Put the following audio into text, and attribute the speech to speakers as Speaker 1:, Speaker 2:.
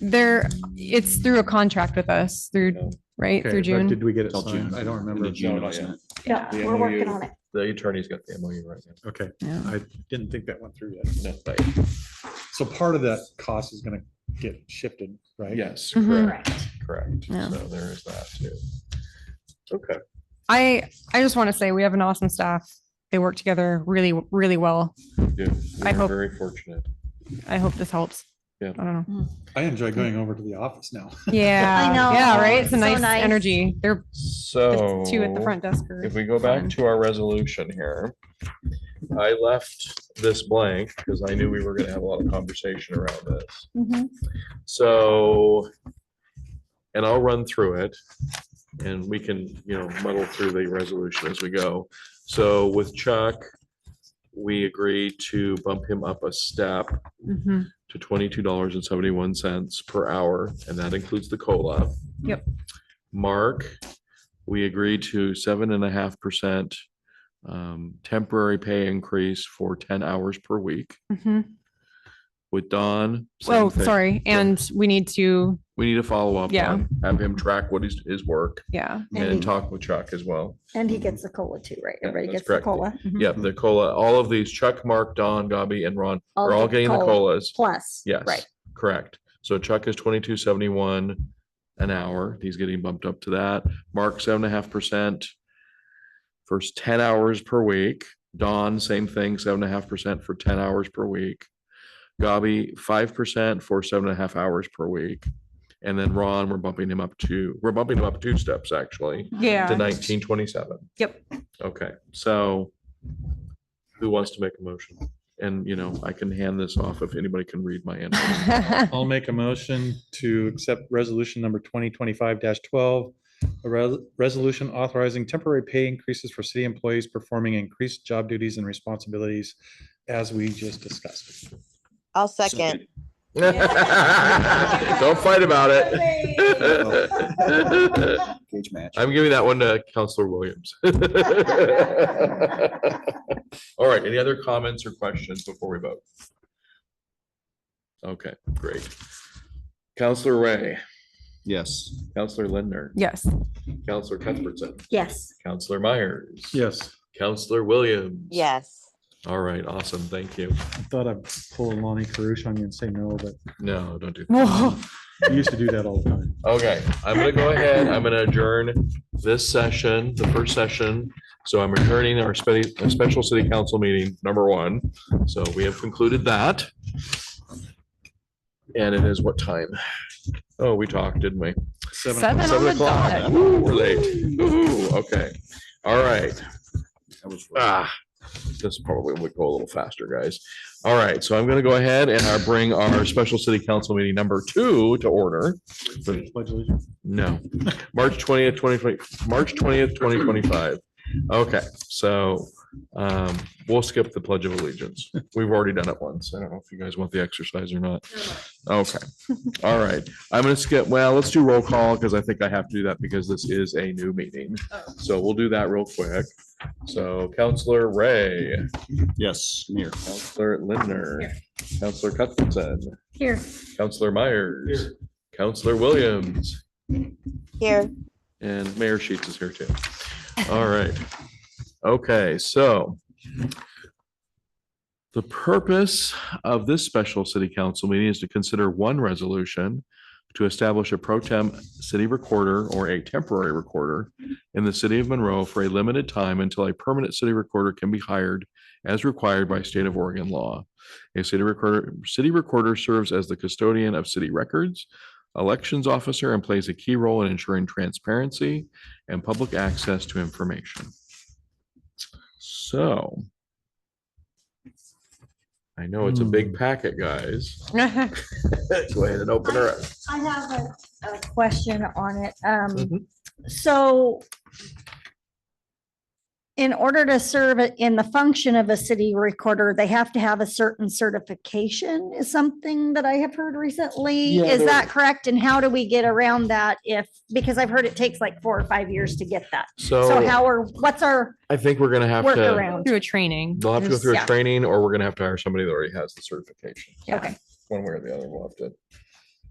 Speaker 1: There, it's through a contract with us through, right,
Speaker 2: Okay,
Speaker 1: through
Speaker 2: but
Speaker 1: June.
Speaker 2: Did we get it
Speaker 3: Till
Speaker 2: signed?
Speaker 3: June.
Speaker 2: I don't
Speaker 3: End
Speaker 2: remember.
Speaker 3: of June,
Speaker 2: No,
Speaker 3: wasn't it?
Speaker 4: Yeah,
Speaker 5: The
Speaker 4: we're working
Speaker 5: MOU.
Speaker 4: on it.
Speaker 5: The attorney's got the MOU right now.
Speaker 2: Okay,
Speaker 1: Yeah.
Speaker 2: I didn't think that went through yet.
Speaker 5: No, but
Speaker 2: So part of that cost is gonna get shifted, right?
Speaker 5: Yes,
Speaker 1: Mhm.
Speaker 5: correct,
Speaker 4: Correct.
Speaker 5: correct.
Speaker 1: Yeah.
Speaker 5: So there is that too. Okay.
Speaker 1: I, I just want to say we have an awesome staff. They work together really, really well.
Speaker 5: Yeah,
Speaker 1: I
Speaker 5: we're
Speaker 1: hope-
Speaker 5: very fortunate.
Speaker 1: I hope this helps.
Speaker 5: Yeah.
Speaker 1: I don't know.
Speaker 2: I enjoy going over to the office now.
Speaker 1: Yeah.
Speaker 4: know.
Speaker 1: Yeah, right? It's a
Speaker 4: So
Speaker 1: nice
Speaker 4: nice.
Speaker 1: energy. They're
Speaker 5: So.
Speaker 1: the two
Speaker 5: Oh.
Speaker 1: at the front desk. are
Speaker 5: If we go back
Speaker 1: fun.
Speaker 5: to our resolution here, I left this blank because I knew we were gonna have a lot of conversation around this.
Speaker 4: Mm-hmm.
Speaker 1: Mhm.
Speaker 5: So, and I'll run through it and we can, you know, muddle through the resolution as we go. So with Chuck, we agreed to bump him up a step
Speaker 1: Mhm.
Speaker 5: to twenty-two dollars and seventy-one cents per hour, and that includes the COLA.
Speaker 1: Yep.
Speaker 5: Mark, we agreed to seven and a half percent um, temporary pay increase for ten hours per week.
Speaker 1: Mhm.
Speaker 5: With Don. same
Speaker 1: Oh,
Speaker 5: thing.
Speaker 1: sorry. And we need to,
Speaker 5: We need to follow up.
Speaker 1: Yeah.
Speaker 5: on, Have him track what his, his work
Speaker 1: yeah.
Speaker 4: And
Speaker 5: and
Speaker 4: he-
Speaker 5: talk with Chuck as well.
Speaker 4: And he gets the cola too, right?
Speaker 5: Yeah,
Speaker 4: Everybody
Speaker 5: Mm-hmm. that's
Speaker 4: gets the
Speaker 5: correct.
Speaker 4: cola.
Speaker 1: Mhm.
Speaker 5: Yep, the COLA, all of these, Chuck, Mark, Don, Gobby, and Ron are
Speaker 4: All
Speaker 5: all
Speaker 4: the
Speaker 5: getting the
Speaker 4: COLA.
Speaker 5: COLAs.
Speaker 4: Plus.
Speaker 5: Yes.
Speaker 4: Right.
Speaker 5: Correct. So Chuck is twenty-two seventy-one an hour. He's getting bumped up to that. Mark, seven and a half percent. First ten hours per week. Don, same thing, seven and a half percent for ten hours per week. Gobby, five percent for seven and a half hours per week. And then Ron, we're bumping him up to, we're bumping him up two steps actually to
Speaker 1: Yeah.
Speaker 5: nineteen twenty-seven.
Speaker 1: Yep.
Speaker 5: Okay, so who wants to make a motion? And, you know, I can hand this off if anybody can read my hand.
Speaker 2: I'll make a motion to accept resolution number twenty twenty-five twelve. A res- resolution authorizing temporary pay increases for city employees performing increased job duties and responsibilities as we just discussed.
Speaker 6: I'll second.
Speaker 5: Don't fight about it.
Speaker 3: Cage match.
Speaker 5: I'm giving that one to Counselor Williams. All right, any other comments or questions before we vote? Okay, great. Counselor Ray,
Speaker 3: Yes.
Speaker 5: Counselor Lindner,
Speaker 1: Yes.
Speaker 5: Counselor Cuthbertson,
Speaker 4: Yes.
Speaker 5: Counselor Myers.
Speaker 2: Yes,
Speaker 5: Counselor Williams.
Speaker 6: Yes.
Speaker 5: All right, awesome. Thank you.
Speaker 2: I thought I'd pull a Lonnie Carush on you and say no, but
Speaker 5: No, don't do that.
Speaker 1: Whoa.
Speaker 2: you used to do that all the time.
Speaker 5: Okay, I'm gonna go ahead. I'm gonna adjourn this session, the first session. So I'm returning our spe- uh, special city council meeting, number one. So we have concluded that. And it is what time? Oh, we talked, didn't we?
Speaker 1: Seven oh on
Speaker 5: Seven
Speaker 1: the
Speaker 5: o'clock.
Speaker 1: dot.
Speaker 5: Woo, We're late. Woo-hoo, Okay, all right.
Speaker 3: That was-
Speaker 5: Ah, this probably would go a little faster, guys. All right, so I'm gonna go ahead and I bring our special city council meeting number two to order.
Speaker 2: Pledge allegiance.
Speaker 5: No, March twentieth, twenty twenty, March twentieth, twenty twenty-five. Okay, so um, we'll skip the pledge of allegiance. We've already done it once. I don't know if you guys want the exercise or not. Okay, all right. I'm gonna skip, well, let's do roll call because I think I have to do that because this is a new meeting. So we'll do that real quick. So Counselor Ray,
Speaker 3: Yes, near.
Speaker 5: Counselor Lindner, Counselor Cuthbertson,
Speaker 1: Here.
Speaker 5: Counselor Myers, Counselor Williams,
Speaker 6: Here.
Speaker 5: And Mayor Sheets is here too. All right. Okay, so the purpose of this special city council meeting is to consider one resolution to establish a pro tem city recorder or a temporary recorder in the city of Monroe for a limited time until a permanent city recorder can be hired as required by state of Oregon law. A city recorder, city recorder serves as the custodian of city records elections officer and plays a key role in ensuring transparency and public access to information. So I know it's a big packet, guys. Go ahead and open her up.
Speaker 4: I have a, a question on it. Um,
Speaker 5: Mhm.
Speaker 4: so in order to serve it in the function of a city recorder, they have to have a certain certification is something that I have heard recently.
Speaker 5: Yeah,
Speaker 4: Is
Speaker 5: there-
Speaker 4: that correct? And how do we get around that if, because I've heard it takes like four or five years to get that. So
Speaker 5: So
Speaker 4: how are, what's our
Speaker 5: I think we're gonna have to,
Speaker 4: workaround?
Speaker 1: Through a training.
Speaker 5: they'll have to go through a
Speaker 4: Yeah.
Speaker 5: training or we're gonna have to hire somebody that already has the certification.
Speaker 1: Yeah.
Speaker 4: Okay.
Speaker 5: One way or the other, we'll have to